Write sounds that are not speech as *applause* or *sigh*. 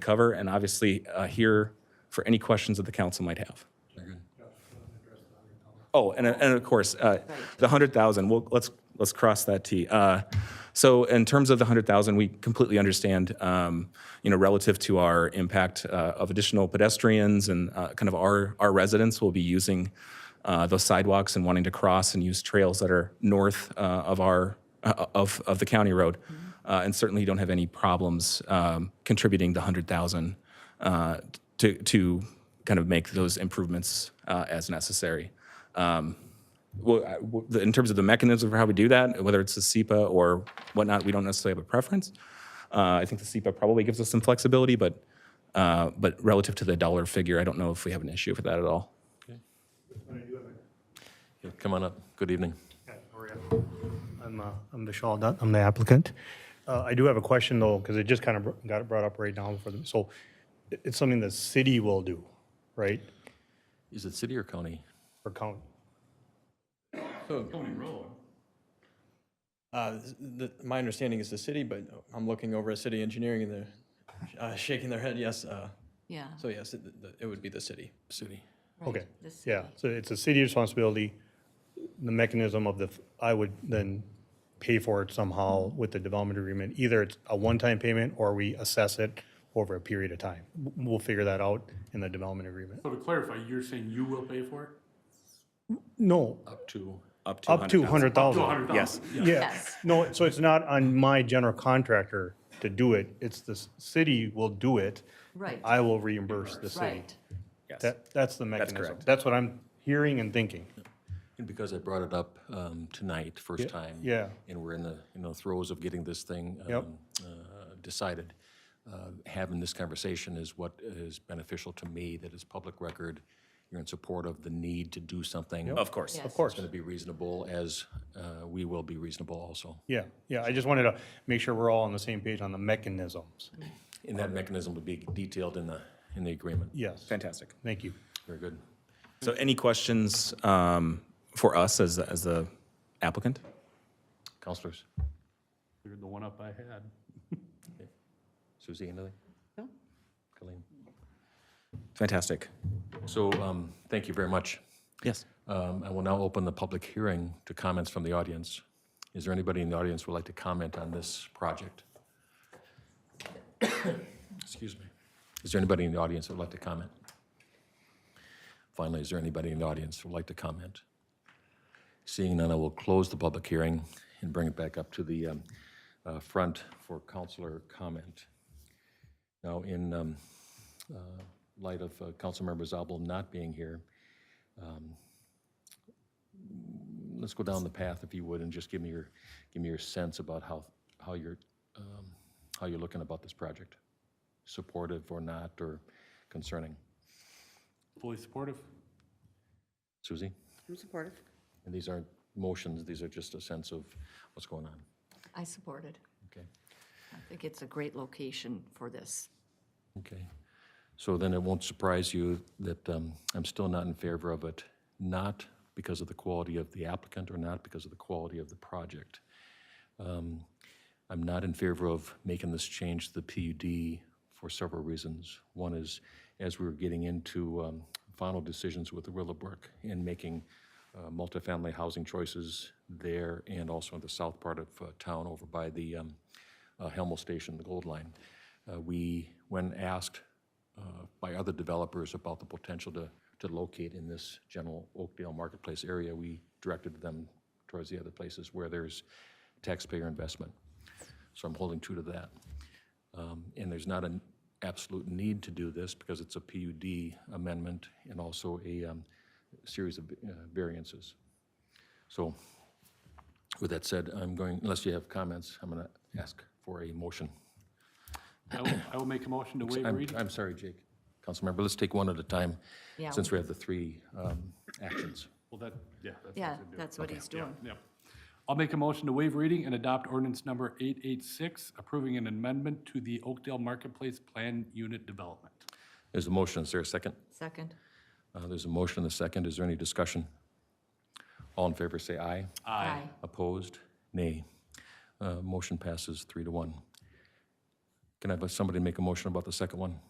cover, and obviously uh, here for any questions that the council might have. Oh, and, and of course, uh, the hundred thousand, well, let's, let's cross that T. Uh, So in terms of the hundred thousand, we completely understand, um, you know, relative to our impact uh, of additional pedestrians and uh, kind of our, our residents will be using uh, those sidewalks and wanting to cross and use trails that are north uh, of our, uh, of, of the county road. Uh, And certainly don't have any problems um, contributing the hundred thousand uh, to, to kind of make those improvements uh, as necessary. Um, well, I- w- the- in terms of the mechanism for how we do that, whether it's the SEPA or whatnot, we don't necessarily have a preference. Uh, I think the SEPA probably gives us some flexibility, but, uh, but relative to the dollar figure, I don't know if we have an issue with that at all. Yeah, Come on up. Good evening. Yeah, hurry up. I'm, uh, I'm Vishal Dutt, I'm the applicant. Uh, I do have a question though, because it just kind of got it brought up right now for them. So it- it's something the city will do, right, Is it city or county? for county? Uh, the, my understanding is the city, but I'm looking over at city engineering and they're uh, shaking their head, yes. Uh, Yeah, so yes, it, the, it would be the city. City. Okay, the city. yeah, so it's a city responsibility. The mechanism of the, f- I would then pay for it somehow with the development agreement. Either it's a one-time payment or we assess it over a period of time. W- We'll figure that out in the development agreement. So to clarify, you're saying you will pay for it? No, Up to. Up up to 100,000. To a hundred thousand? Yes. Yeah, Yes. no, so it's not on my general contractor to do it, it's the s- city will do it. Right. I will reimburse the city. Right. Yes. That, that's the mechanism. correct. That's what I'm hearing and thinking. And because I brought it up um, tonight, first time. yeah. And we're in the, you know, throes of getting this thing Yep. um, uh, decided. Uh, Having this conversation is what is beneficial to me, that is public record. You're in support of the need to do something. Of course. Yes. Of course. It's going to be reasonable, as uh, we will be reasonable also. Yeah, yeah, I just wanted to make sure we're all on the same page on the mechanisms. Mm-hmm. And that mechanism will be detailed in the, in the agreement. Yes, Fantastic. thank you. Very good. So any questions um, for us as, the- as the applicant? Counselors, You're the one up I had. Suzie, anything? No. Colleen? Fantastic. So, um, thank you very much. Yes. Um, I will now open the public hearing to comments from the audience. Is there anybody in the audience who would like to comment on this project? *coughs* Excuse me. Is there anybody in the audience who would like to comment? Finally, is there anybody in the audience who would like to comment? Seeing none, I will close the public hearing and bring it back up to the um, uh, front for counselor comment. Now, in um, uh, light of uh, Councilmember Zabel not being here, let's go down the path, if you would, and just give me your, give me your sense about how, how you're, um, how you're looking about this project, supportive or not, or concerning. Fully supportive? Suzie? I'm supportive. And these aren't motions, these are just a sense of what's going on. I support it. Okay, I think it's a great location for this. okay. So then it won't surprise you that um, I'm still not in favor of it, not because of the quality of the applicant or not because of the quality of the project. I'm not in favor of making this change to the PUD for several reasons. One is, as we were getting into um, final decisions with the Willowbrook and making uh, multifamily housing choices there and also in the south part of uh, town over by the um, uh, Helmel Station, the Gold Line, uh, we, when asked uh, by other developers about the potential to, to locate in this general Oakdale marketplace area, we directed them towards the other places where there's taxpayer investment. So I'm holding true to that. Um, And there's not an absolute need to do this because it's a PUD amendment and also a um, series of uh, variances. So with that said, I'm going, unless you have comments, I'm going to ask for a motion. I will, I will make a motion to waive I'm, reading. I'm sorry, Jake, Councilmember, let's take one at a time, Yeah. since we have the three um, actions. Well, that, yeah. that's what Yeah, I said, that's what he's doing. Yep. I'll make a motion to waive reading and adopt ordinance number 886, approving an amendment to the Oakdale Marketplace Plan Unit Development. There's a motion, is there a second? Second? Uh, There's a motion and a second, is there any discussion? All in favor, say aye. Aye. Opposed? Nay. Uh, Motion passes three to one. Can I have somebody make a motion about the second one?